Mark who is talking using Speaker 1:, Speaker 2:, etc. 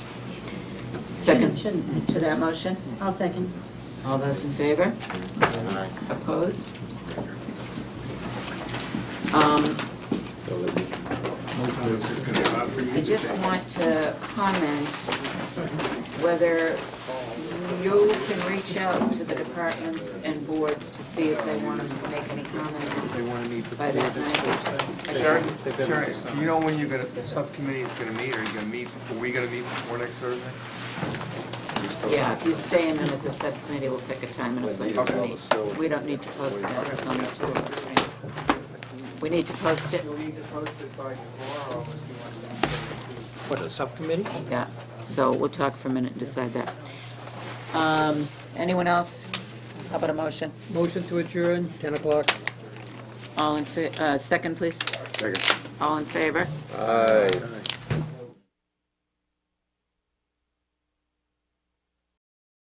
Speaker 1: Second
Speaker 2: Shouldn't
Speaker 1: to that motion?
Speaker 2: I? I'll second.
Speaker 1: All those in favor?
Speaker 3: Aye.
Speaker 1: Opposed? Um, I just want to comment whether you can reach out to the departments and boards to see if they want to make any comments
Speaker 4: They want to meet before
Speaker 1: by that
Speaker 4: the
Speaker 1: night.
Speaker 5: Sherry,
Speaker 4: They've been
Speaker 5: Sherry,
Speaker 4: there.
Speaker 5: do you know when you're gonna, the subcommittee is gonna meet, are you gonna meet, are we gonna meet before next Thursday?
Speaker 1: Yeah, if you stay a minute, the subcommittee will pick a time and a place to meet. We don't need to post that, there's only two of us, right? We need to post it?
Speaker 6: You'll need to post it by tomorrow if you want to.
Speaker 4: What, a subcommittee?
Speaker 1: Yeah, so we'll talk for a minute and decide that. Um, Anyone else? How about a motion?
Speaker 4: Motion to adjourn, 10 o'clock.
Speaker 1: All in, fa- uh, second, please?
Speaker 3: Second.
Speaker 1: All in favor?
Speaker 3: Aye.